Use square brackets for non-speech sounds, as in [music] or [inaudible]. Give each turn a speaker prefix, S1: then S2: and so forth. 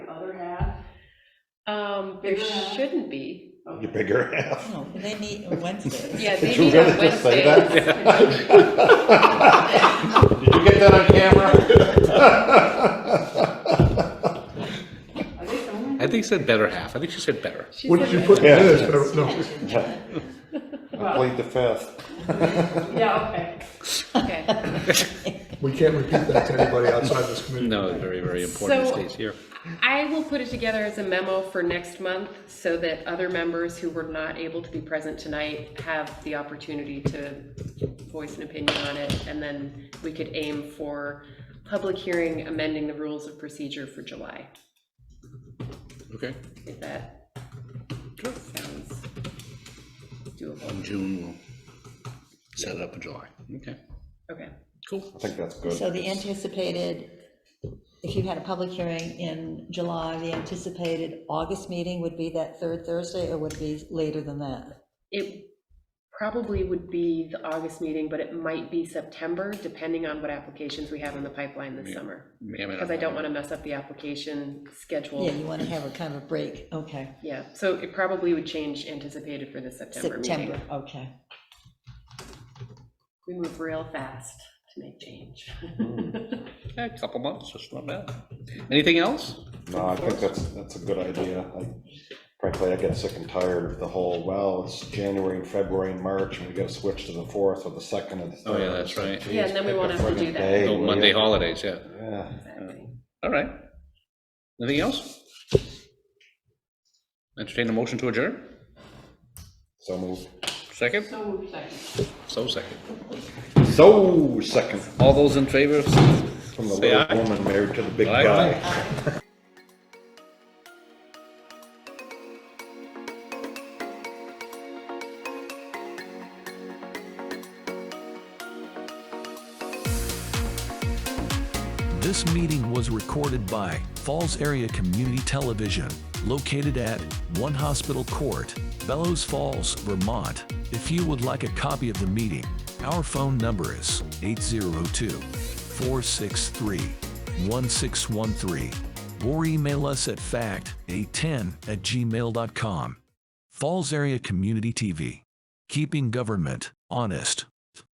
S1: Um, there
S2: Bigger half.
S1: shouldn't be.
S2: Okay.
S3: You bigger half.
S4: No, Oh, they meet
S1: [laughs]
S4: on Wednesday.
S1: Yeah,
S3: Did
S1: they
S3: you
S1: meet on
S3: really just say that?
S1: Wednesdays.
S3: Did you get that on camera?
S2: Are they filming?
S5: I think she said better half. I think she said better.
S1: She
S6: What did
S1: said
S6: you put in
S3: Yeah.
S6: this? I don't know.
S3: I played the fifth.
S2: Yeah, okay.
S1: that. Okay.
S6: We can't repeat that to anybody outside this committee.
S5: No, very, very important
S1: So-
S5: stays here.
S1: I will put it together as a memo for next month so that other members who were not able to be present tonight have the opportunity to voice an opinion on it. And then we could aim for public hearing amending the rules of procedure for July,
S5: Okay.
S1: if that sounds doable.
S5: In June, we'll set it up in July. Okay,
S1: Okay.
S5: cool.
S3: I think that's good.
S4: So the anticipated, if you had a public hearing in July, the anticipated August meeting would be that third Thursday, or would it be later than that?
S1: It probably would be the August meeting, but it might be September, depending on what applications we have in the pipeline this
S5: Yeah.
S1: summer.
S5: Yeah, mean,
S1: Because I don't want to mess up the application schedule.
S4: Yeah, you want to have a kind of a break, okay.
S1: Yeah, so it probably would change anticipated for the September meeting.
S4: September, okay.
S1: We move real fast to make change.
S5: Yeah, a couple months, that's not bad. Anything else?
S3: No, I think that's, that's a good idea. I- Frankly, I get sick and tired of the whole, well, it's January and February and March, and we gotta switch to the fourth or the second and the
S5: Oh,
S3: third.
S5: yeah, that's right.
S1: [laughs] Yeah, and then we
S3: Pick a
S1: won't have to do
S3: friggin'
S1: that.
S3: day,
S5: Oh,
S3: will
S5: Monday
S3: ya?
S5: holidays, yeah.
S3: Yeah.
S1: Exactly.
S5: All right. Anything else? Entertain a motion to adjourn?
S3: So moved.
S5: Second?
S2: So, second.
S5: So second.
S3: So second
S5: All those in favor?
S3: from the
S5: Say aye.
S3: little woman married to the big
S5: Aye,
S3: guy.
S5: aye.
S7: This meeting was recorded by Falls Area Community Television, located at One Hospital Court, Bellows Falls, Vermont. If you would like a copy of the meeting, our phone number is 802 463 1613 or email us at fact810 at gmail.com. Falls Area Community TV, keeping government honest.